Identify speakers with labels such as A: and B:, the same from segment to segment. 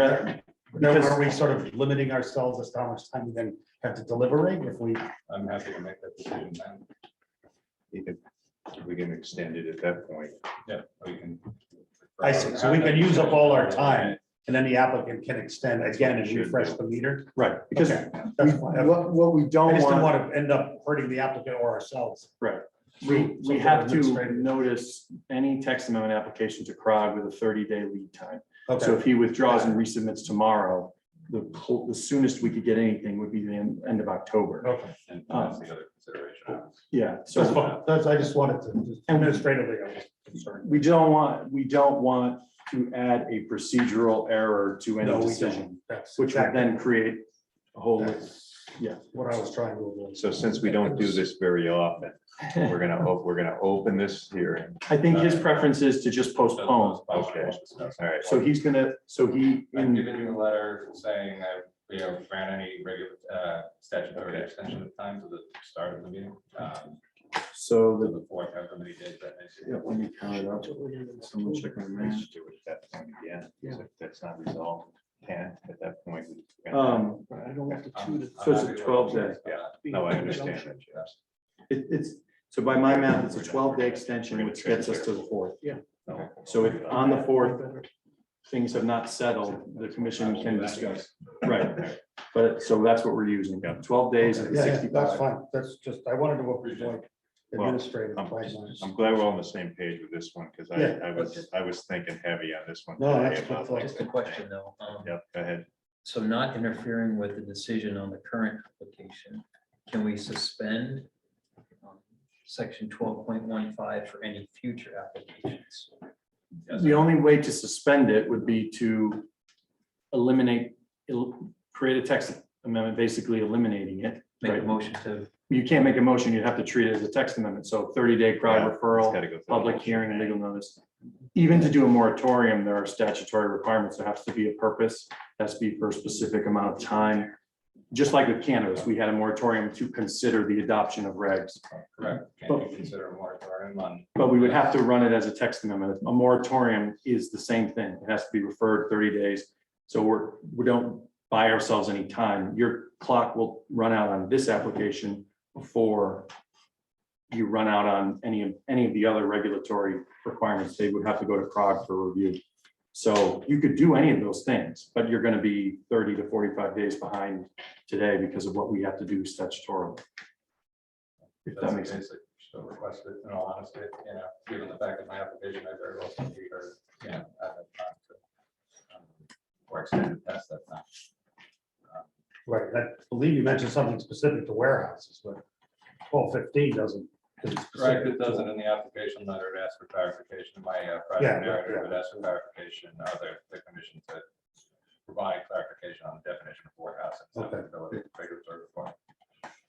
A: Yeah,
B: Now,
A: because-
B: are we sort of limiting ourselves as to how much time we then have to deliberate if we,
C: I'm happy to make that decision then.
D: If We can extend it at that point.
C: Yeah, we can.
B: I see, so we can use up all our time. and then the applicant can extend again and refresh the meter?
A: right, because
B: Okay,
A: we-
B: that's fine. I
A: what, what we don't
B: just don't
A: want,
B: want to end up hurting the applicant or ourselves.
E: We,
B: So
E: we
B: for
E: have to
B: administrative-
E: notice any text amendment application to CROG with a thirty day lead time. So
B: Okay,
E: if he withdraws and resubmits tomorrow, the, pl- the soonest we could get anything would be the end, end of October.
B: okay,
C: And that's the other consideration.
E: Yeah,
B: Oh. that's
E: so
B: fine, that's, I just wanted to, administratively, I was concerned.
E: we don't want, we don't want to add a procedural error to
B: No,
E: any
B: we don't.
E: decision,
B: That's
E: which would
B: exactly
E: then create a whole.
B: what I was trying to avoid.
D: So since we don't do this very often, we're gonna, op- we're gonna open this hearing.
E: I think his preference is to just postpone.
D: Okay. All right.
E: So he's gonna, so he,
C: I've
E: in-
C: given you a letter saying I, you know, ran any regular uh, statutory extension of time to the start of the meeting. um,
E: so
C: To
E: the,
C: the fourth, however many days that is.
E: yeah, let me count it up. Someone check my
D: Let's
E: math.
D: just do it at that point again. 'cause If that's not resolved, can, at that point. we can-
E: Um,
C: I'm- I'm
E: So it's a
C: happy with
E: 12
C: it.
E: day.
C: Yeah.
D: No, I understand that, yes.
E: It, it's, so by my math, it's a twelve day extension, which gets us to the fourth.
D: No.
E: So if on the fourth, things have not settled, the commission can discuss. Right, but, so that's what we're using, twelve days and
B: Yeah, yeah, that's
E: sixty-five.
B: fine, that's just, I wanted to avoid
D: Well,
B: administrative.
D: I'm-
B: timelines.
D: I'm glad we're all on the same page with this one, because
B: Yeah.
D: I, I was, I was thinking heavy on this one.
B: No, that's
D: today about
B: good.
D: like-
F: Just a question though. um,
D: Yep, go ahead.
F: So not interfering with the decision on the current application, can we suspend um, section twelve point one five for any future applications?
E: The only way to suspend it would be to eliminate, el- create a text amendment, basically eliminating it.
F: Make a
E: Right.
F: motion to,
E: You can't make a motion, you'd have to treat it as a text amendment, so thirty day crowd
D: Yeah,
E: referral.
D: It's gotta go through.
E: public hearing, legal notice. Even to do a moratorium, there are statutory requirements. There has to be a purpose, has to be for a specific amount of time. Just like with cannabis, we had a moratorium to consider the adoption of regs,
C: Correct. Can you consider a moratorium on
E: but we would have to run it as a text amendment. A moratorium is the same thing. It has to be referred thirty days. So we're, we don't buy ourselves any time. Your clock will run out on this application before you run out on any of, any of the other regulatory requirements. They would have to go to CROG for review. So you could do any of those things, but you're gonna be thirty to forty-five days behind today because of what we have to do statutorily. If that makes sense.
C: Still requested, in all honesty, you know, given the fact that my application, I very well could be heard, you know, at that time. to, um, Or extended past that time.
B: Right, I believe you mentioned something specific to warehouses, but twelve fifteen doesn't. isn't specific
C: Correct, it
B: to-
C: doesn't in the application letter, it asks for clarification, my uh,
B: Yeah,
C: project
B: yeah,
C: narrative,
B: yeah.
C: it asks for clarification, other, the commission to provide clarification on the definition of warehouse. and
B: Okay.
C: accessibility regulatory reform.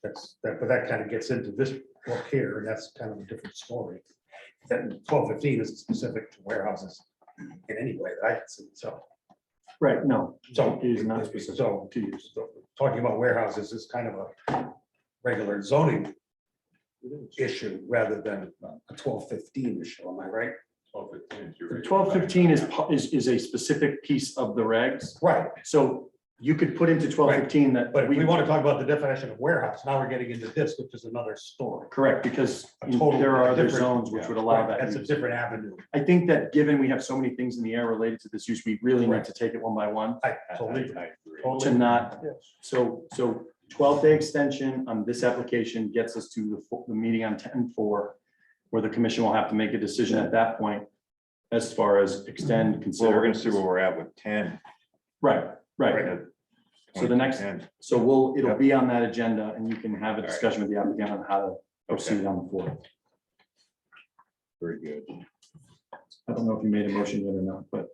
B: That's, that, but that kind of gets into this book here, and that's kind of a different story. That twelve fifteen is specific to warehouses in any way that I can see, so,
E: Right, no,
B: so.
E: It is not specific
B: So,
E: to use.
B: talking about warehouses is kind of a regular zoning issue rather than a twelve fifteen issue, am I right?
C: Twelve fifteen is your regular
E: Twelve fifteen is,
C: language.
E: pu- is, is a specific piece of the regs.
B: Right,
E: So you could put into twelve fifteen that.
B: but if we want to talk about the definition of warehouse, now we're getting into this, which is another story.
E: Correct, because
B: A total
E: there are other
B: different-
E: zones which would allow that.
B: That's a
E: use.
B: different avenue.
E: I think that given we have so many things in the air related to this use, we really need to take it one by one
B: I
D: I- I-
B: totally,
D: I agree.
E: to
B: totally.
E: not. So, so twelve day extension on this application gets us to the, fo- the meeting on ten four, where the commission will have to make a decision at that point as far as extend,
D: Well,
E: consider.
D: we're gonna see where we're at with ten. Uh,
E: Right, right. So the next-
D: 10.
E: So we'll, it'll be on that agenda and you can have a
D: All right.
E: discussion with the applicant on how to proceed on the floor.
D: Very good.
E: I don't know if you made a motion yet or not, but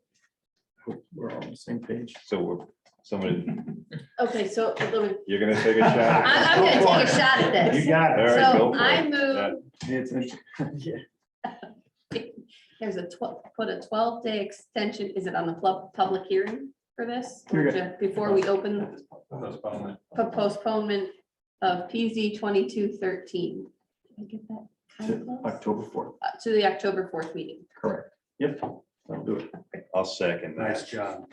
E: I hope we're all on the same page.
D: So we're, someone,
G: Okay, so a little-
D: you're gonna take a shot? at
G: I'm, I'm
D: this?
G: gonna take a shot at
B: You
G: this.
B: got
D: All
B: it.
D: right, go
G: So
D: for
G: I
D: it.
G: move,
E: It's, it's-
G: there's a twelve, put a twelve day extension, is it on the pub- public hearing for this? Or
E: You're
G: ju- Before we open
C: Postponement.
G: for postponement of PZ twenty-two thirteen. Did I get that kind
E: it's
G: of close?
E: October fourth,
G: Uh, To the October fourth meeting.
E: correct. Yep.
H: I'll do it.
E: I'll second that.
D: Nice job.